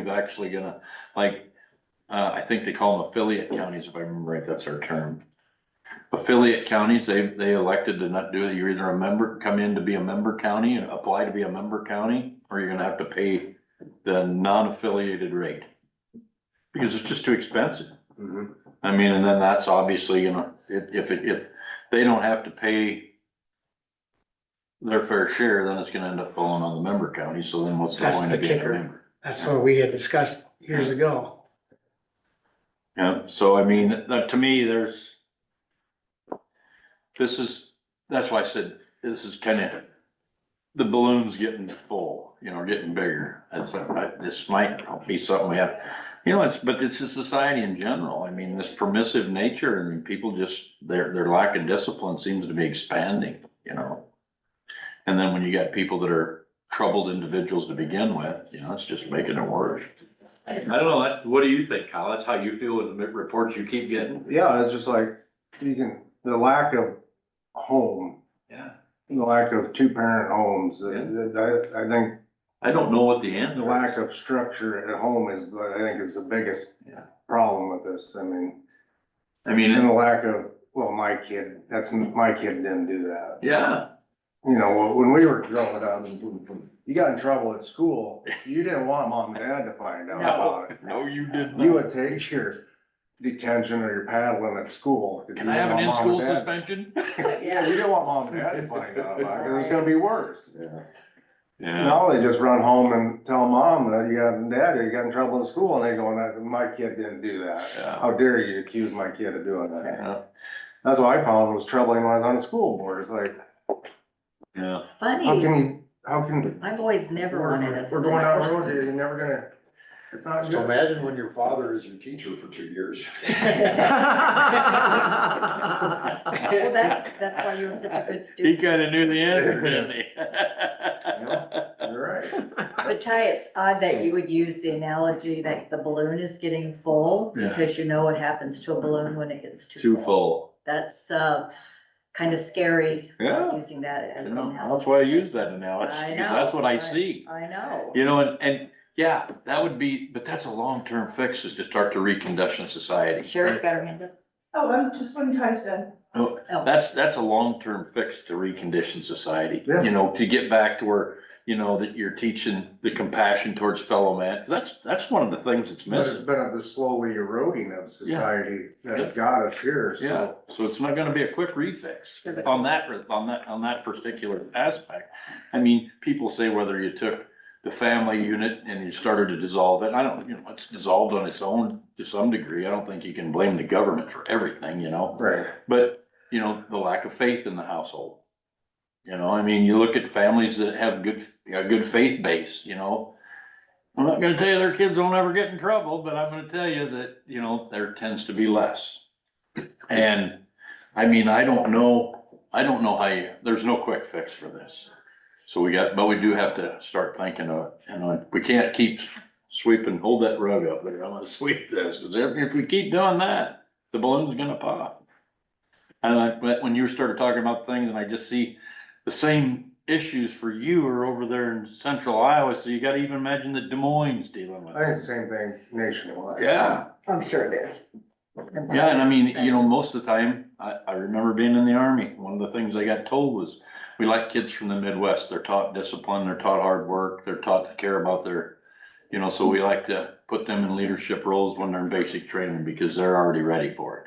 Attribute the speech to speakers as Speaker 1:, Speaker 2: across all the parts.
Speaker 1: actually gonna, like, uh, I think they call them affiliate counties, if I remember right, that's our term. Affiliate counties, they, they elected to not do it, you're either a member, come in to be a member county and apply to be a member county, or you're gonna have to pay the non-affiliated rate. Because it's just too expensive.
Speaker 2: Mhm.
Speaker 1: I mean, and then that's obviously, you know, if, if, it- if they don't have to pay their fair share, then it's gonna end up falling on the member county, so then what's the
Speaker 3: That's
Speaker 1: point
Speaker 3: the
Speaker 1: of being a
Speaker 3: kicker.
Speaker 1: member?
Speaker 3: That's what we had discussed years ago.
Speaker 1: Yeah, so I mean, that, to me, there's this is, that's why I said, this is kinda, the balloon's getting full, you know, getting bigger. That's, I- this might be something we have, you know, it's, but it's a society in general. I mean, this permissive nature and people just, their, their lack of discipline seems to be expanding, you know? And then when you got people that are troubled individuals to begin with, you know, it's just making it worse. I don't know, that, what do you think, Kyle? That's how you feel with the reports you keep getting?
Speaker 2: Yeah, it's just like, you can, the lack of home,
Speaker 1: Yeah.
Speaker 2: the lack of two-parent homes, that- that- I, I think
Speaker 1: I don't know what the
Speaker 2: the
Speaker 1: answer.
Speaker 2: lack of structure at home is, I think is the biggest
Speaker 1: Yeah.
Speaker 2: problem with this, I mean,
Speaker 1: I
Speaker 2: and
Speaker 1: mean,
Speaker 2: the lack of, well, my kid, that's, my kid didn't do that.
Speaker 1: yeah,
Speaker 2: You know, when we were growing up, you got in trouble at school, you didn't want mom and dad to find out about it.
Speaker 1: no, you did
Speaker 2: You
Speaker 1: not.
Speaker 2: would take your detention or your paddling at school. 'cause
Speaker 1: Can
Speaker 2: you
Speaker 1: I have an
Speaker 2: didn't want mom
Speaker 1: in-school
Speaker 2: and dad-
Speaker 1: suspension?
Speaker 2: Yeah, you didn't want mom and dad to find out about it, 'cause it was gonna be worse.
Speaker 1: Yeah.
Speaker 2: Now they just run home and tell mom that you got, dad, you got in trouble in school, and they go, "That- my kid didn't do that.
Speaker 1: Yeah.
Speaker 2: How dare you accuse my kid of doing that?
Speaker 1: Yeah,
Speaker 2: That's what I found was troubling when I was on the school board, it's like,
Speaker 1: yeah,
Speaker 2: how
Speaker 4: Funny,
Speaker 2: can, how can
Speaker 4: I've always never wanted
Speaker 2: We're
Speaker 4: us.
Speaker 2: we're going down the road here, you're never gonna, it's not
Speaker 5: Just
Speaker 2: good.
Speaker 5: imagine when your father is your teacher for two years.
Speaker 4: Well, that's, that's why you were such a good
Speaker 1: he
Speaker 4: student.
Speaker 1: kinda knew the answer, didn't he?
Speaker 2: You're right.
Speaker 4: But Ty, it's odd that you would use the analogy that the balloon is getting full,
Speaker 1: Yeah.
Speaker 4: because you know what happens to a balloon when it gets too
Speaker 1: Too
Speaker 4: full.
Speaker 1: full,
Speaker 4: That's, uh, kind of scary,
Speaker 1: yeah,
Speaker 4: using that as
Speaker 1: you
Speaker 4: an
Speaker 1: know,
Speaker 4: analogy.
Speaker 1: that's why I use that analogy,
Speaker 4: I
Speaker 1: 'cause
Speaker 4: know,
Speaker 1: that's what I
Speaker 4: I-
Speaker 1: see.
Speaker 4: I know.
Speaker 1: You know, and, and, yeah, that would be, but that's a long-term fix is to start to recondition society.
Speaker 4: Sherry's got her hand up.
Speaker 6: Oh, I'm just one time's done.
Speaker 1: Oh,
Speaker 4: Oh.
Speaker 1: That's, that's a long-term fix to recondition society,
Speaker 2: Yeah.
Speaker 1: you know, to get back to where, you know, that you're teaching the compassion towards fellow man. That's, that's one of the things that's
Speaker 2: But it's
Speaker 1: missing.
Speaker 2: been a- the slowly eroding of society that has got us here,
Speaker 1: Yeah,
Speaker 2: so.
Speaker 1: so it's not gonna be a quick refix on that, on that, on that particular aspect. I mean, people say whether you took the family unit and you started to dissolve it, I don't, you know, it's dissolved on its own to some degree. I don't think you can blame the government for everything, you know?
Speaker 2: Right.
Speaker 1: But, you know, the lack of faith in the household. You know, I mean, you look at families that have good, a good faith base, you know. I'm not gonna tell you their kids don't ever get in trouble, but I'm gonna tell you that, you know, there tends to be less. And, I mean, I don't know, I don't know how you, there's no quick fix for this. So we got, but we do have to start thinking of, you know, we can't keep sweeping, hold that rug up there, I'm gonna sweep this, cause if if we keep doing that, the balloon's gonna pop. And I, but when you started talking about things and I just see the same issues for you are over there in central Iowa, so you gotta even imagine that Des Moines dealing with
Speaker 2: I think
Speaker 1: it.
Speaker 2: it's the same thing nationwide.
Speaker 1: Yeah,
Speaker 4: I'm sure it is.
Speaker 1: yeah, and I mean, you know, most of the time, I, I remember being in the army, one of the things I got told was, we like kids from the Midwest, they're taught discipline, they're taught hard work, they're taught to care about their, you know, so we like to put them in leadership roles when they're in basic training, because they're already ready for it.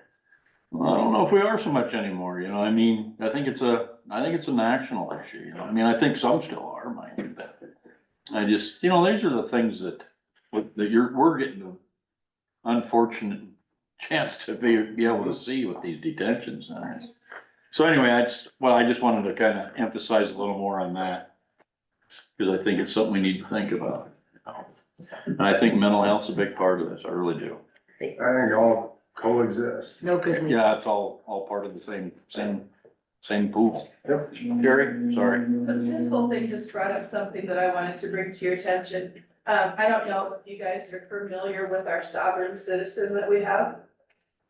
Speaker 1: Well, I don't know if we are so much anymore, you know, I mean, I think it's a, I think it's a national issue, you know, I mean, I think some still are, mind you, but I just, you know, these are the things that, that you're, we're getting an unfortunate chance to be, be able to see with these detention centers. So anyway, that's, well, I just wanted to kind of emphasize a little more on that. Because I think it's something we need to think about. And I think mental health's a big part of this, I really do.
Speaker 2: I think all coexist.
Speaker 4: No good news.
Speaker 1: Yeah, it's all, all part of the same, same, same pool.
Speaker 2: Yep.
Speaker 1: Jerry, sorry.
Speaker 6: This whole thing just brought up something that I wanted to bring to your attention. Um, I don't know if you guys are familiar with our sovereign citizen that we have.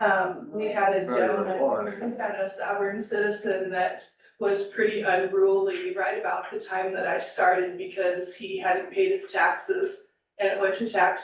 Speaker 6: Um, we had a gentleman, we had a sovereign citizen that was pretty unruly right about the time that I started because he hadn't paid his taxes and it went to tax